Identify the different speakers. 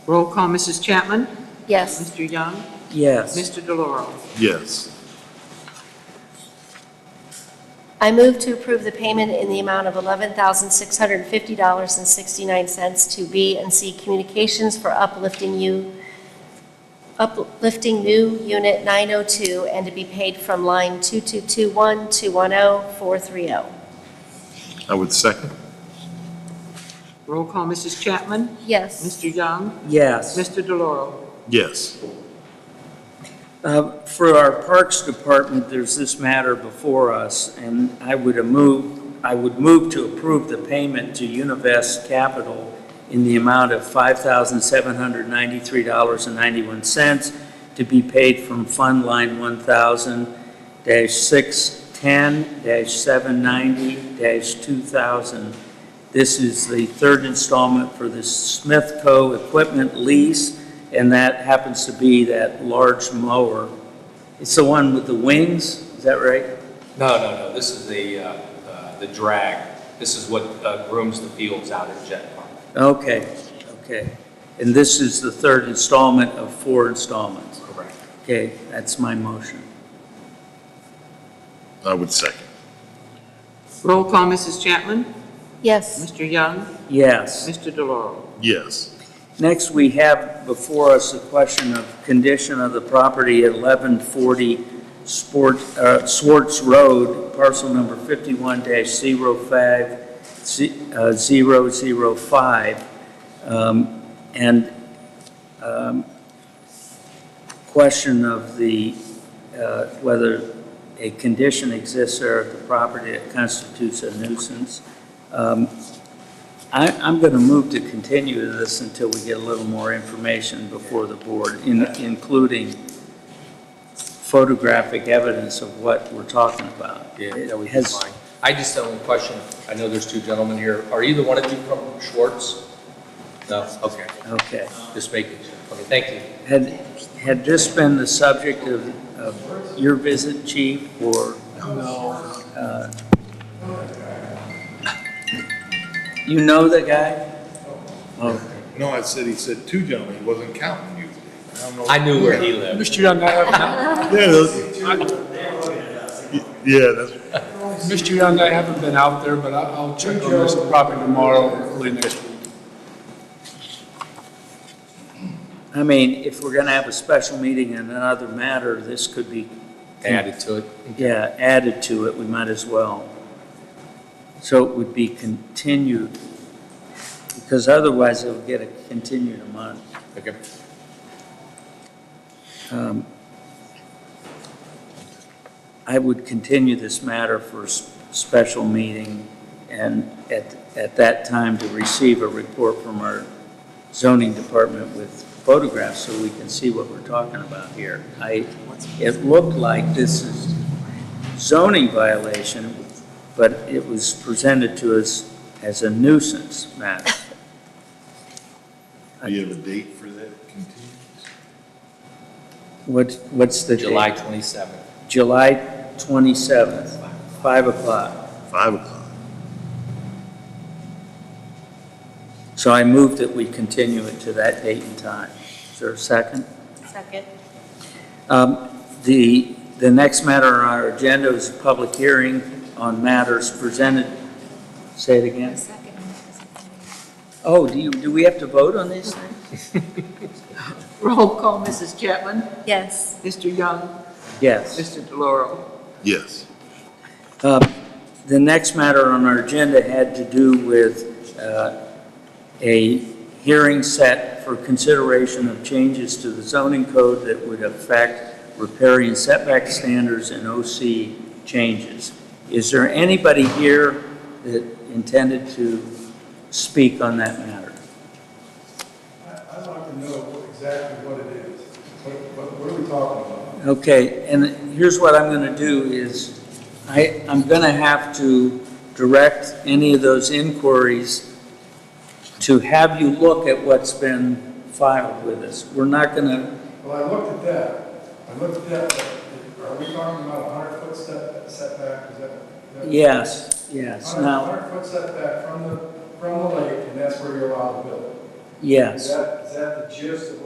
Speaker 1: Roll call, Mrs. Chapman?
Speaker 2: Yes.
Speaker 1: Mr. Young?
Speaker 3: Yes.
Speaker 1: Mr. DeLauro?
Speaker 4: Yes.
Speaker 2: I move to approve the payment in the amount of $11,650.69 to B and C Communications for uplifting you, uplifting new Unit 902 and to be paid from line 2221210
Speaker 4: I would second.
Speaker 1: Roll call, Mrs. Chapman?
Speaker 2: Yes.
Speaker 1: Mr. Young?
Speaker 3: Yes.
Speaker 1: Mr. DeLauro?
Speaker 4: Yes.
Speaker 3: Uh, For our Parks Department, there's this matter before us, and I would a move, I would move to approve the payment to Univest Capital in the amount of $5,793.91 to be paid from Fund Line 1,000-610-790-2000. This is the third installment for the Smith Co. equipment lease, and that happens to be that large mower. It's the one with the wings, is that right?
Speaker 5: No, no, no, this is the, uh, uh, the drag. This is what uh, grooms the fields out at Jet Park.
Speaker 3: Okay, okay. And this is the third installment of four installments.
Speaker 5: Correct.
Speaker 3: Okay, that's my motion.
Speaker 4: I would second.
Speaker 1: Roll call, Mrs. Chapman?
Speaker 2: Yes.
Speaker 1: Mr. Young?
Speaker 3: Yes.
Speaker 1: Mr. DeLauro?
Speaker 4: Yes.
Speaker 3: Next, we have before us the question of condition of the property at 1140 Sport, uh, Swartz Road, parcel number uh, 51-05-005. Um, And um, question of the, uh, whether a condition exists there at the property that constitutes a nuisance. Um, I, I'm going to move to continue this until we get a little more information before the board, in- including photographic evidence of what we're talking about.
Speaker 5: That would be
Speaker 3: Has-
Speaker 5: fine. I just have one question. I know there's two gentlemen here. Are either one of you from Schwartz? No, okay,
Speaker 3: Okay.
Speaker 5: just making sure. Okay, thank you.
Speaker 3: Had, had this been the subject of, of your visit, chief, or? Uh, No. You know the guy? Oh,
Speaker 4: No, I said, he said two gentlemen, he wasn't counting you. don't know.
Speaker 5: I knew where he lived.
Speaker 6: Mr. Young, I have,
Speaker 4: Yeah, those- yeah, that's,
Speaker 6: Mr. Young, I haven't been out there, but I- I'll check on this probably tomorrow, or early next week.
Speaker 3: I mean, if we're going to have a special meeting in another matter, this could be,
Speaker 5: Added to it.
Speaker 3: yeah, added to it, we might as well. So it would be continued, because otherwise it'll get a continued amount.
Speaker 5: Okay.
Speaker 3: Um, I would continue this matter for s- special meeting and at, at that time to receive a report from our zoning department with photographs so we can see what we're talking about here. I, it looked like this is zoning violation, but it was presented to us as a nuisance matter.
Speaker 4: do you have a date for that continuance?
Speaker 3: What, what's the date?
Speaker 5: July 27th.
Speaker 3: July 27th, 5 o'clock.
Speaker 4: Five o'clock.
Speaker 3: So I move that we continue it to that date and time. Is there a second?
Speaker 2: Second.
Speaker 3: Um, The, the next matter on our agenda is a public hearing on matters presented, say it again.
Speaker 2: Second.
Speaker 3: Oh, do you, do we have to vote on these things?
Speaker 1: Roll call, Mrs. Chapman?
Speaker 2: Yes.
Speaker 1: Mr. Young?
Speaker 3: Yes.
Speaker 1: Mr. DeLauro?
Speaker 4: Yes.
Speaker 3: Um, The next matter on our agenda had to do with uh, a hearing set for consideration of changes to the zoning code that would affect riparian setback standards and OC changes. Is there anybody here that intended to speak on that matter?
Speaker 7: I- I'd like to know what- exactly what it is. What, what- what are we talking about?
Speaker 3: Okay, and here's what I'm going to do is, I, I'm going to have to direct any of those inquiries to have you look at what's been filed with us. We're not going to,
Speaker 7: Well, I looked at that, I looked at that, but are we talking about a hundred foot set setback, is that? that-
Speaker 3: yes, yes,
Speaker 7: Hundred
Speaker 3: now,
Speaker 7: hundred foot setback from the, from the lake, and that's where you're allowed to build.
Speaker 3: Yes.
Speaker 7: Is that, is that the gist of